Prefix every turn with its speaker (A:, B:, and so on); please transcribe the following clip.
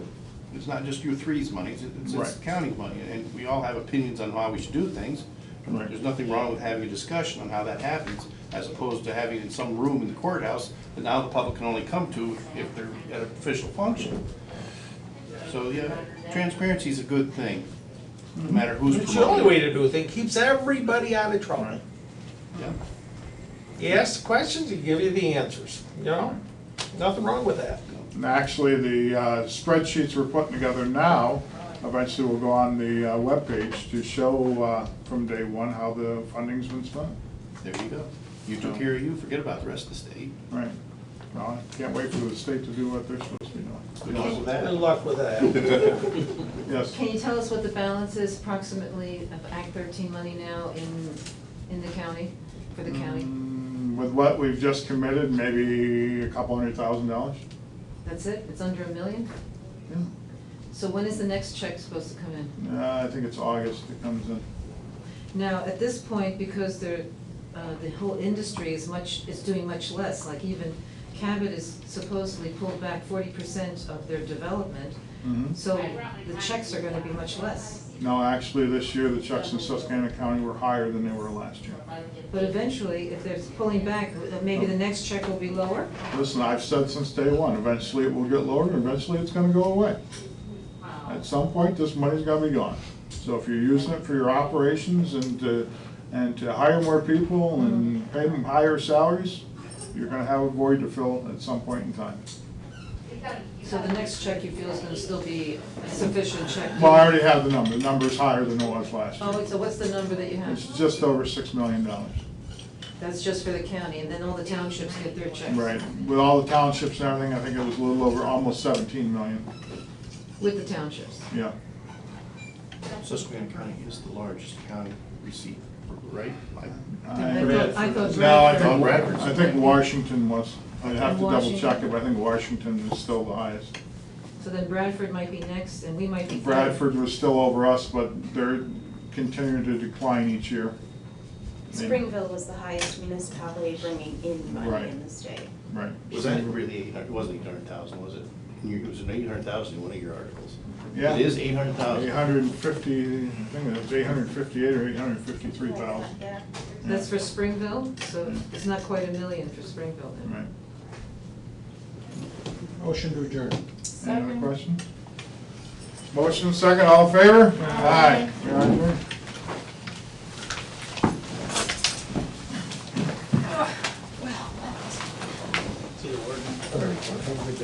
A: It's not just your three's money, it's- it's, it's
B: Right.
A: county money, and we all have opinions on how we should do things.
B: Right.
A: There's nothing wrong with having a discussion on how that happens, as opposed to having it in some room in the courthouse that now the public can only come to if they're at an official function. So, yeah, transparency is a good thing, no
B: Hmm.
A: matter who's
C: It's the only
A: promoting.
C: way to do a thing, keeps everybody out of trouble.
B: Right.
A: Yeah.
C: You ask the questions, he give you the answers, you know? Nothing wrong with that.
B: And actually, the uh, spreadsheets we're putting together now, eventually will go on the uh, webpage to show uh, from day one how the funding's been spent.
A: There you go. You took care of you, forget about the rest of the state.
B: Right. Well, I can't wait for the state to do what they're supposed to be
A: Good
B: doing.
A: luck with that.
C: Good luck with that.
B: Yes.
D: Can you tell us what the balance is approximately of Act thirteen money now in, in the county, for the county?
B: Mm, With what we've just committed, maybe a couple hundred thousand dollars.
D: That's it? It's under a million? So when is the next check supposed to come in?
B: Uh, I think it's August it comes in.
D: Now, at this point, because the, uh, the whole industry is much, is doing much less, like even Cabot is supposedly pulled back forty percent of their development,
B: Mhm.
D: so the checks are gonna be much less.
B: No, actually, this year, the checks in Susquehanna County were higher than they were last year.
D: But eventually, if they're pulling back, uh, maybe the next check will be lower?
B: Listen, I've said since day one, eventually it will get lower, and eventually it's gonna go away. At some point, this money's gonna be gone. So if you're using it for your operations and to, and to hire more people and pay them higher salaries, you're gonna have a void to fill at some point in time.
D: So the next check you feel is gonna still be a sufficient check?
B: Well, I already have the number, the number's higher than it was last
D: Oh,
B: year.
D: so what's the number that you
B: It's
D: have?
B: just over six million dollars.
D: That's just for the county, and then all the townships get their checks?
B: Right, with all the townships and everything, I think it was a little over, almost seventeen million,
D: With the townships?
B: yeah.
A: Susquehanna County is the largest county receiver, right? Like,
D: I thought- I thought
B: No, I
A: Bradford-
B: think, I think Washington was, I'd have to double check
D: Washington.
B: it, but I think Washington is still the highest.
D: So then Bradford might be next, and we might be. third.
B: Bradford was still over us, but they're continuing to decline each year.
E: Springville was the highest municipality bringing in money in
B: Right.
E: the state.
B: Right.
A: Was that really eight hundred, it wasn't eight hundred thousand, was it? You- It was an eight hundred thousand in one of your articles.
B: Yeah.
A: It is eight hundred
B: Eight
A: thousand.
B: hundred and fifty, I think it was eight hundred and fifty-eight or eight hundred and fifty-three thousand.
E: Yeah.
D: That's for Springville, so it's not quite a million for Springville then.
B: Right.
F: Motion to adjourn.
B: Any other
E: Second.
B: questions? Motion second, all in favor? Aye. We are adjourned.